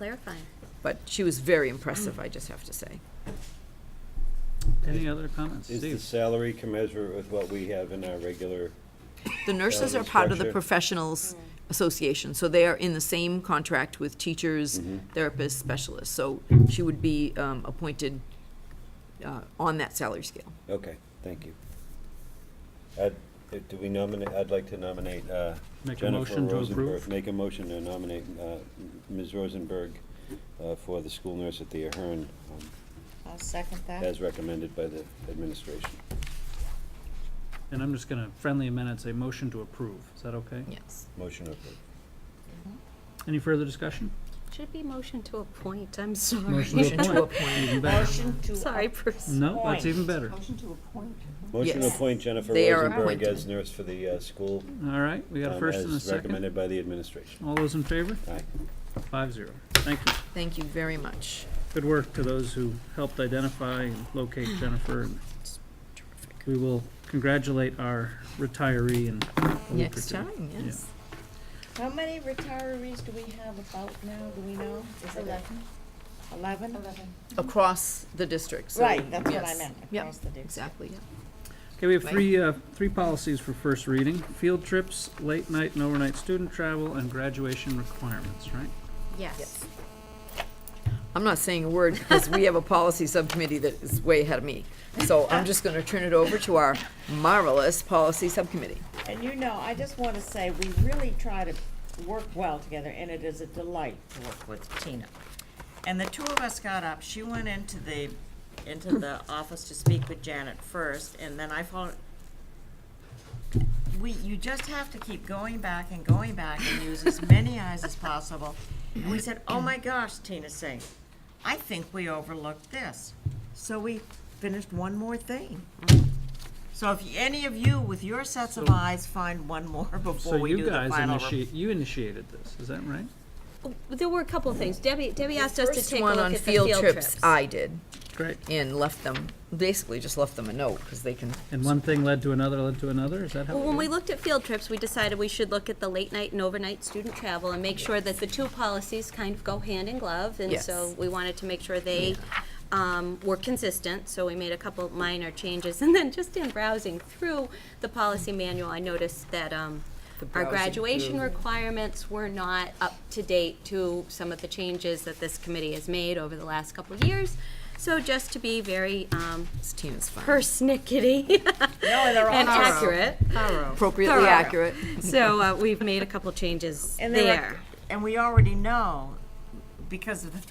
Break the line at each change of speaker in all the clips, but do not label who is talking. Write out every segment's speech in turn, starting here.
clarifying.
But she was very impressive, I just have to say.
Any other comments?
Is the
Steve?
salary commensurate with what we have in our regular?
The nurses are
Salary
part of the
structure.
professionals association, so they are in the same contract with teachers,
Mm. Mm-hmm.
therapists, specialists. So she would be um, appointed uh, on that salary scale.
Okay, thank you. I'd- uh, Do we nominate, I'd like to nominate uh,
Make a
Jennifer
motion to
Rosenberg.
approve?
Make a motion to nominate uh, Ms. Rosenberg uh, for the school nurse at the Ahern, um,
I'll second that.
as recommended by the administration.
And I'm just gonna friendly amend and say motion to approve. Is that okay?
Yes.
Motion approved.
Any further discussion?
Should it be motion to appoint, I'm sorry.
Motion
Motion to
to
appoint.
Even better.
Motion to.
Sorry, Bruce.
No, that's even better.
Motion to appoint.
Motion to
Yes.
appoint Jennifer
They are
Rosenberg
appointed.
as nurse for the uh, school,
All right, we got a
um,
first and a
as
second.
recommended by the administration.
All those in favor?
Aye.
Five zero. Thank you.
Thank you very much.
Good work to those who helped identify and locate Jennifer. and We will congratulate our retiree in a week or
Next
two.
time,
Yeah.
yes.
How many retirees do we have about now, do we know? Is it
Eleven.
Eleven?
Across the district, so.
Right, that's what I
yes.
meant,
Yep,
across the district.
Exactly, yeah.
Okay, we have
Mike?
three, uh, three policies for first reading. Field trips, late night and overnight student travel, and graduation requirements, right?
Yes.
I'm not saying a word because we have a policy subcommittee that is way ahead of me. So I'm just going to turn it over to our marvelous policy subcommittee.
And you know, I just want to say, we really try to work well together, and it is a delight to work with Tina. And the two of us got up, she went into the, into the office to speak with Janet first, and then I followed. We, you just have to keep going back and going back and use as many eyes as possible. And we said, oh my gosh, Tina Singh, I think we overlooked this. So we finished one more thing. So if any of you with your sets of
So-
eyes find one more before
So
we
you
do the
guys
final. re-
initiate, you initiated this, is that right?
There were a couple of things. Debbie, Debbie asked us to
First
take a
one
look
on
at the field trips.
I did
Great.
and left them, basically just left them a note because they can.
And one thing led to another, led to another, is that how?
Well, when
it
we
is?
looked at field trips, we decided we should look at the late night and overnight student travel and make sure that the two policies kind of go hand in glove. And
Yes.
so we wanted to make sure they um, were consistent, so we made a couple minor changes. And then just in browsing through the policy manual, I noticed that um,
The
our
browsing
graduation
through.
requirements were not up to date to some of the changes that this committee has made over the last couple of years. So just to be very um,
This team is fun.
persnickety
No, they're all
and
thorough.
accurate.
Appropriately
Thorough.
accurate.
So uh, we've made a couple changes
And they
there.
were- And we already know, because of the,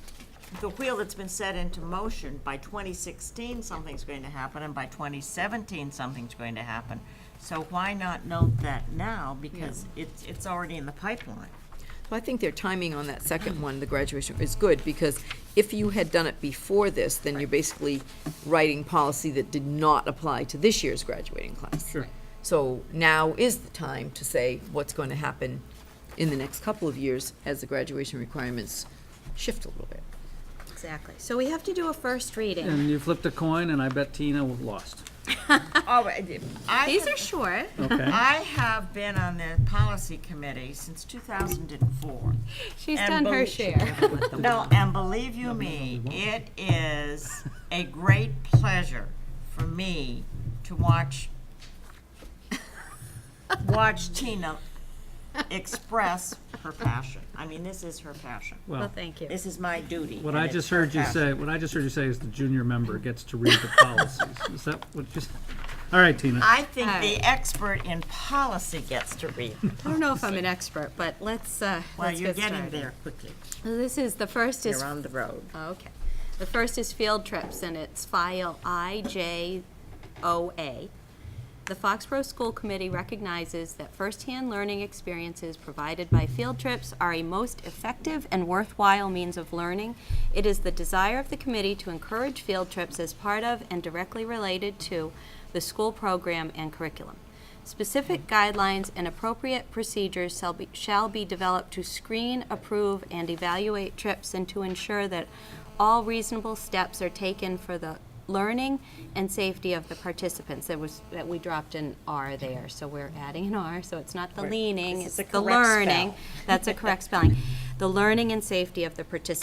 the wheel that's been set into motion, by twenty sixteen, something's going to happen, and by twenty seventeen, something's going to happen. So why not note that now, because it's, it's already in the pipeline.
Well, I think their timing on that second one, the graduation, is good because if you had done it before this, then you're basically writing policy that did not apply to this year's graduating class.
Sure.
So now is the time to say what's going to happen in the next couple of years as the graduation requirements shift a little bit.
Exactly. So we have to do a first reading.
And you flipped a coin, and I bet Tina lost,
Oh, I- I
These
have-
are short.
okay?
I have been on the policy committee since two thousand and four.
She's
And
done her
believe-
share.
No, and believe you me, it is a great pleasure for me to watch watch Tina express her passion. I mean, this is her passion.
Well,
Well,
thank you.
This is my duty.
what
and
I
it's
just
her
heard you
passion.
say, what I just heard you say is the junior member gets to read the policies. Is that what you, s- all right, Tina.
I think
All
the expert in policy gets to read.
I don't know if I'm an expert, but let's, uh,
Well,
let's
you're
get
getting
started.
there quickly.
This is, the first is
You're on the road.
Oh, Okay. The first is field trips, and it's file IJOA. The Foxborough School Committee recognizes that firsthand learning experiences provided by field trips are a most effective and worthwhile means of learning. It is the desire of the committee to encourage field trips as part of and directly related to the school program and curriculum. Specific guidelines and appropriate procedures shall be, shall be developed to screen, approve, and evaluate trips and to ensure that all reasonable steps are taken for the learning and safety of the participants. That was, that we dropped an R there, so we're adding an R, so it's not the leaning,
This
it's
is the
the
correct
learning.
spell.
That's a correct spelling. The learning and safety of the participants.